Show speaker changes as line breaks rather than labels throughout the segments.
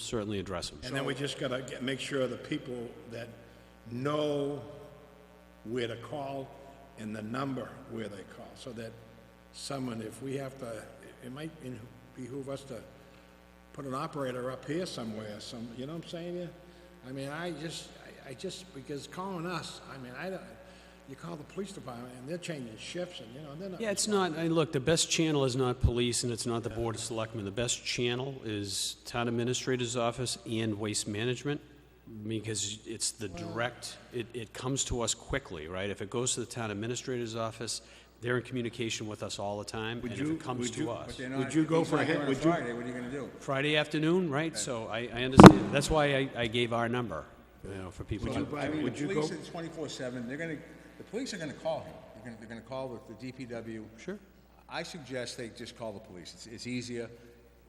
certainly address them.
And then we just gotta get- make sure the people that know where to call and the number where they call, so that someone, if we have to, it might in- behoove us to put an operator up here somewhere, some, you know what I'm saying? yeah? I mean, I just, I- I just, because calling us, I mean, I don't, you call the police department and they're changing shifts and, you know, they're not.
Yeah, it's not, I, look, the best channel is not police and it's not the Board of Selectmen. The best channel is Town Administrator's Office and Waste Management because it's the direct, it, it comes to us quickly, right? If it goes to the Town Administrator's Office, they're in communication with us all the time and if
you-
it comes
would
to
you-
us.
They're not-
Would you
if
go
he's
for a
not
hit-
going on
would you-
Friday, what are you gonna do?
Friday afternoon, right? So I, I understand. That's why I, I gave our number, you know, for people to.
I mean, the
Would you
police
go,
is twenty-four seven, they're gonna, the police are gonna call him. They're gonna, they're gonna call the- the DPW.
Sure.
I suggest they just call the police. It's, it's easier.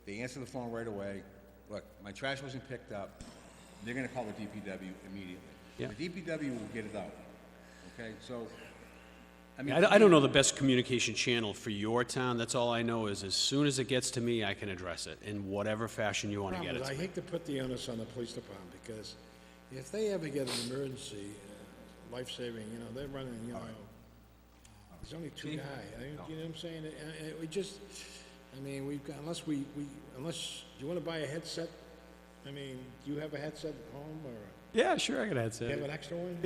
They answer the phone right away. Look, my trash wasn't picked up. They're gonna call the DPW immediately.
Yeah.
The DPW will get it out. Okay, so, I mean.
I, don't- I don't know the best communication channel for your town. That's all I know is as soon as it gets to me, I can address it in whatever fashion you want to get
problem
it to.
is, I hate to put the onus on the police department, because if they ever get an emergency, uh, life-saving, you know, they're running, you know, there's only two guys, you know what I'm saying? And- and we just, I mean, we've got, unless we, we, unless, you wanna buy a headset? I mean, do you have a headset at home, or
Yeah, sure, I can answer.
do you have an extra one?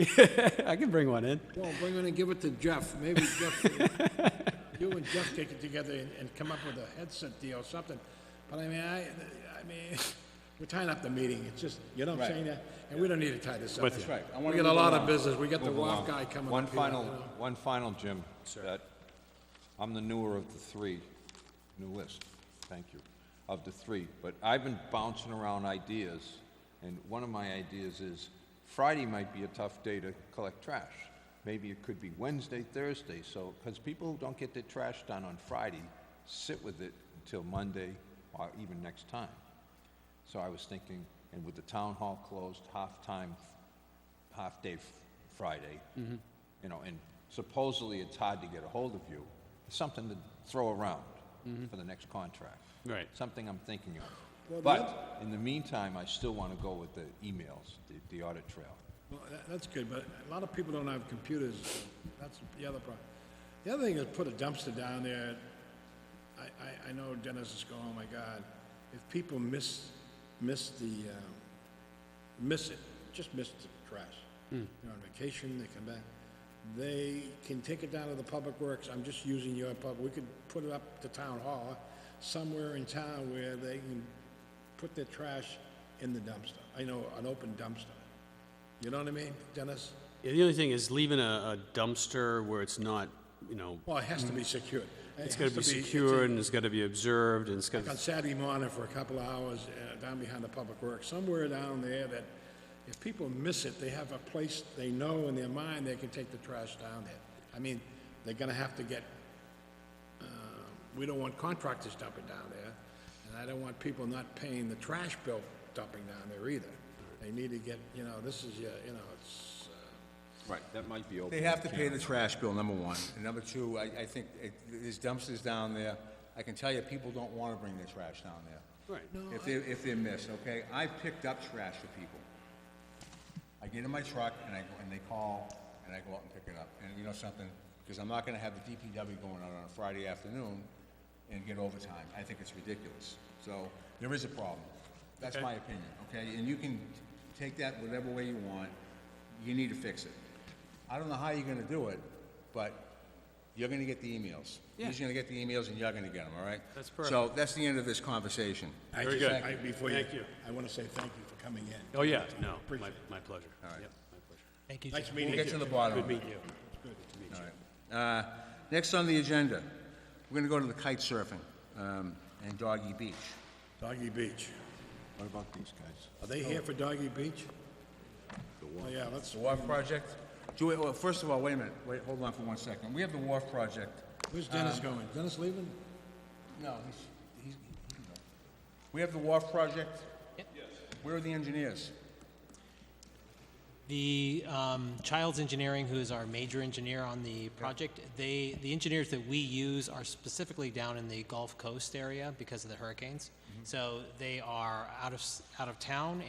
I can bring one in.
Well, bring one and give it to Jeff, maybe Jeff, you and Jeff take it together and, and come up with a headset deal or something. But I mean, I, I mean, we're tying up the meeting, it's just, you know what I'm
Right.
saying? yeah? And we don't need to tie this up.
With you.
That's right. I
We
wanna
got a
move
lot of
along.
business, we got the
Move
WAF
along.
guy coming
One
up here,
final,
you know.
one final, Jim, that, I'm the newer of the three, new list, thank you, of the three, but I've been bouncing around ideas, and one of my ideas is Friday might be a tough day to collect trash. Maybe it could be Wednesday, Thursday, so, because people who don't get their trash done on Friday sit with it until Monday or even next time. So I was thinking, and with the town hall closed, half-time, half-day f- Friday, you know, and supposedly it's hard to get a hold of you, something to throw around for the next contract.
Right.
Something I'm thinking of.
that-
But in the meantime, I still want to go with the emails, the, the audit trail.
Well, that- that's good, but a lot of people don't have computers, that's the other problem. The other thing is put a dumpster down there, I, I, I know Dennis is going, oh my God, if people miss, miss the, um, miss it, just miss the trash. They're on vacation, they come back, they can take it down to the public works, I'm just using your pub, we could put it up to town hall, somewhere in town where they can put their trash in the dumpster, I know, an open dumpster. You know what I mean, Dennis?
Yeah, the only thing is leaving a, a dumpster where it's not, you know,
Well, it has to be secured.
it's got to be secured and it's got to be observed and it's got
On
to,
Saturday morning for a couple of hours, uh, down behind the public works, somewhere down there that if people miss it, they have a place they know in their mind they can take the trash down there. I mean, they're gonna have to get, uh, we don't want contractors dumping down there, and I don't want people not paying the trash bill dumping down there either. They need to get, you know, this is, uh, you know, it's, uh,
Right, that might be
They have to pay the trash bill, number one. And number two, I, I think it- there's dumpsters down there. I can tell you, people don't want to bring their trash down there. Right. If they're, if they're missed, okay? I picked up trash for people. I get in my truck and I, go and they call and I go out and pick it up. And you know something? Because I'm not going to have the DPW going out on a Friday afternoon and get overtime. I think it's ridiculous. So there is a problem. That's my opinion, okay? And you can take that whatever way you want. You need to fix it. I don't know how you're going to do it, but you're going to get the emails. He's going to get the emails and you're going to get them, all right? That's perfect. So that's the end of this conversation.
I
Very
just-
good.
I- Before you,
Thank you.
I want to say thank you for coming in.
oh, yeah, no, my,
Appreciate
my pleasure. Yep, my pleasure.
it. Nice
We'll
meeting you.
get to the bottom of it.
Thank you.
Uh, Next on the agenda, we're gonna go to the kite surfing um, and Doggy Beach.
Doggy Beach.
What about these guys?
Are they here for Doggy Beach? Oh, yeah, let's,
The Wharf Project? Do we, well, first of all, wait a minute, wait, hold on for one second. We have the Wharf Project.
where's Dennis going? Dennis leaving?
No, he's, he's, he can go. We have the Wharf Project? Yes. Where are the engineers?
The um, Childs Engineering, who is our major engineer on the project, they, the engineers that we use are specifically down in the Gulf Coast area because of the hurricanes. So they are out of, s- out of town